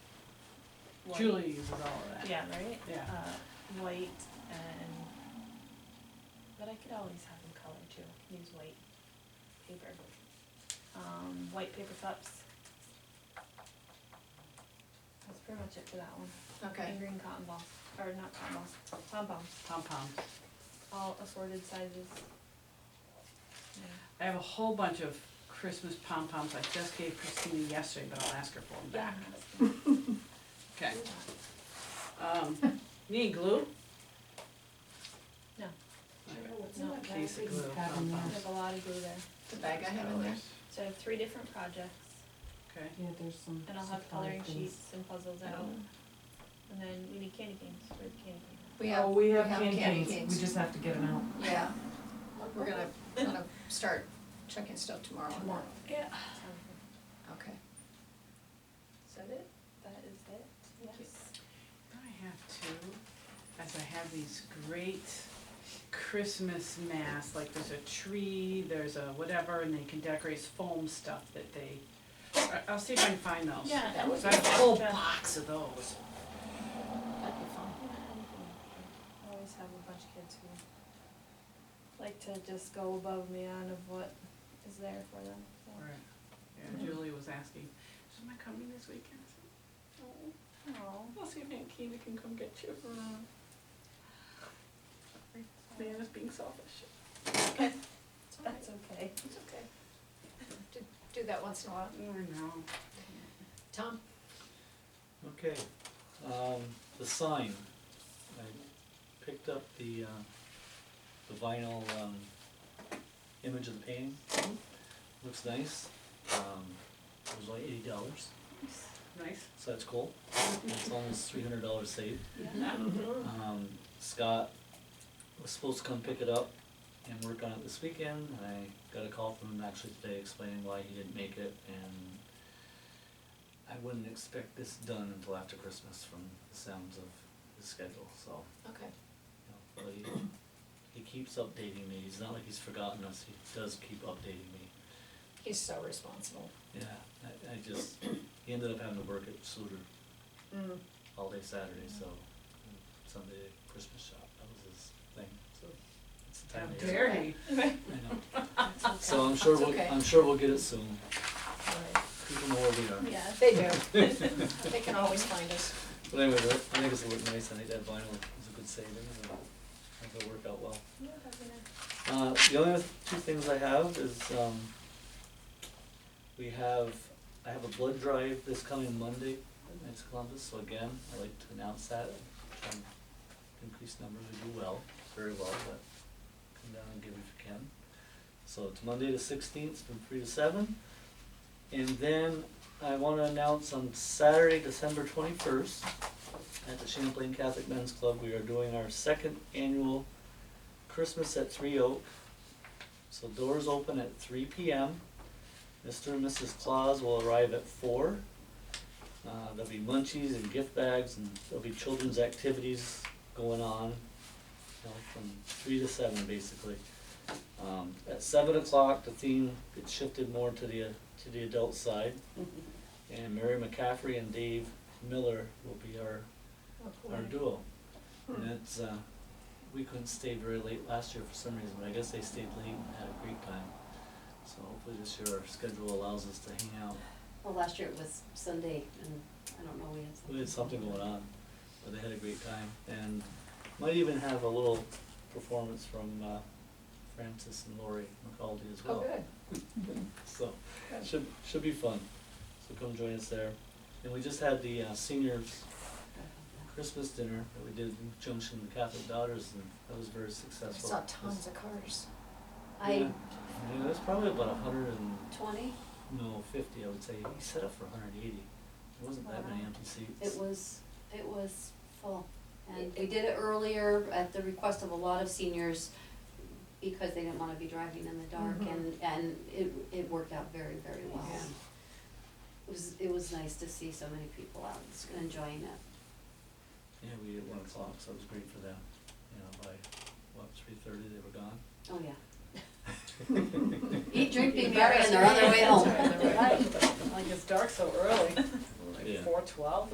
white. Julie uses all of that. Yeah, right? Yeah. Uh, white and, but I could always have them color too, I can use white paper. Um, white paper cups. That's pretty much it for that one. Okay, And green cotton balls, or not cotton balls, pom poms, Pom poms. all assorted sizes. Yeah. I have a whole bunch of Christmas pom poms I just gave Christina yesterday, but I'll ask her for them back. Okay. Um, need glue? No. What's in that Case of bag? glue, pom There's poms. a lot of glue there. the bag I have in there. So I have three different projects. Okay, Yeah, there's some. And I'll have supply coloring things. sheets and puzzles out, Um, and then we need candy canes, where's the candy cane? We Oh, have, we have candy canes, we just have to get them out. Yeah, we're gonna, gonna start checking stuff tomorrow. on that. Yeah. Okay. Is that it? That is it, yes. I have two, as I have these great Christmas masks, like there's a tree, there's a whatever, and they can decorate foam stuff that they, I- I'll see if I can find those. Yeah, that was. So I have a whole box of those. That'd be fun. I always have a bunch of kids who like to just go above and beyond of what is there for them, so. Right. Yeah, Julie was asking, is my coming this weekend? I said, Aw. I'll see if Aunt Keena can come get you. Man is being selfish. That's okay. It's okay. Do, do that once in a while. Or no. Tom? Okay, um, the sign, I picked up the, uh, the vinyl, um, image of the painting. Looks nice, um, it was like eighty dollars, Nice. so that's cool, it's almost three hundred dollars saved. Yeah. Um, Scott was supposed to come pick it up and work on it this weekend, and I got a call from him actually today explaining why he didn't make it, and I wouldn't expect this done until after Christmas from the sounds of his schedule, so, Okay. you know, but he, he keeps updating me, it's not like he's forgotten us, he does keep updating me. He's so responsible. Yeah, I, I just, he ended up having to work at Suter Mm. all day Saturday, so and Sunday Christmas shop, that was his thing, so it's the How time of year. dare he? I know, so I'm sure That's we'll, okay. I'm sure we'll get it soon, Alright. people know where we are. Yeah. They do. They can always find us. But anyway, that- I think it's gonna look nice, I think that vinyl is a good save, and it'll, I think it'll work out well. Yeah, that's gonna- Uh, the only other two things I have is, um, we have, I have a blood drive this coming Monday at Knights of Columbus, so again, I'd like to announce that. Try and Increase numbers, we do well, very well, but come down and give if you can. So it's Monday the sixteenth, from three to seven. And then I wanna announce on Saturday, December twenty-first, at the Champlain Catholic Men's Club, we are doing our second annual Christmas at Three Oak. So doors open at three P M. Mr. and Mrs. Claus will arrive at four. Uh, there'll be munchies and gift bags and there'll be children's activities going on, you know, from three to seven basically. Um, at seven o'clock, the theme gets shifted more to the, to the adult side. And Mary McCaffrey and Dave Miller will be our our duo. And it's, uh, we couldn't stay very late last year for some reason, but I guess they stayed late and had a great time. So hopefully this year our schedule allows us to hang out. Well, last year it was Sunday, and I don't know, we had something. We had something going on, but they had a great time and might even have a little performance from, uh, Francis and Lori McCaldy as Oh, well. good. So, Good. should, should be fun. So come join us there. And we just had the uh, seniors Christmas dinner that we did in conjunction with Catholic Daughters, and that was very I successful. saw tons of cars. I, Yeah, Yeah, that's probably about a hundred and, twenty, no, fifty, I would say, he set up for a hundred and eighty. There wasn't that many empty seats. it was, it was full. And we did it earlier at the request of a lot of seniors because they didn't wanna be driving in the dark Mhm. and, and it, it worked out very, very well. Yeah. It was, it was nice to see so many people out enjoying it. Yeah, we ate at one o'clock, so it was great for them. You know, by, what, three thirty, they were gone? Oh, yeah. Eat, drink, be merry, and they're on their way That's home. right, they're on their way. Like it's dark so early, Yeah. four twelve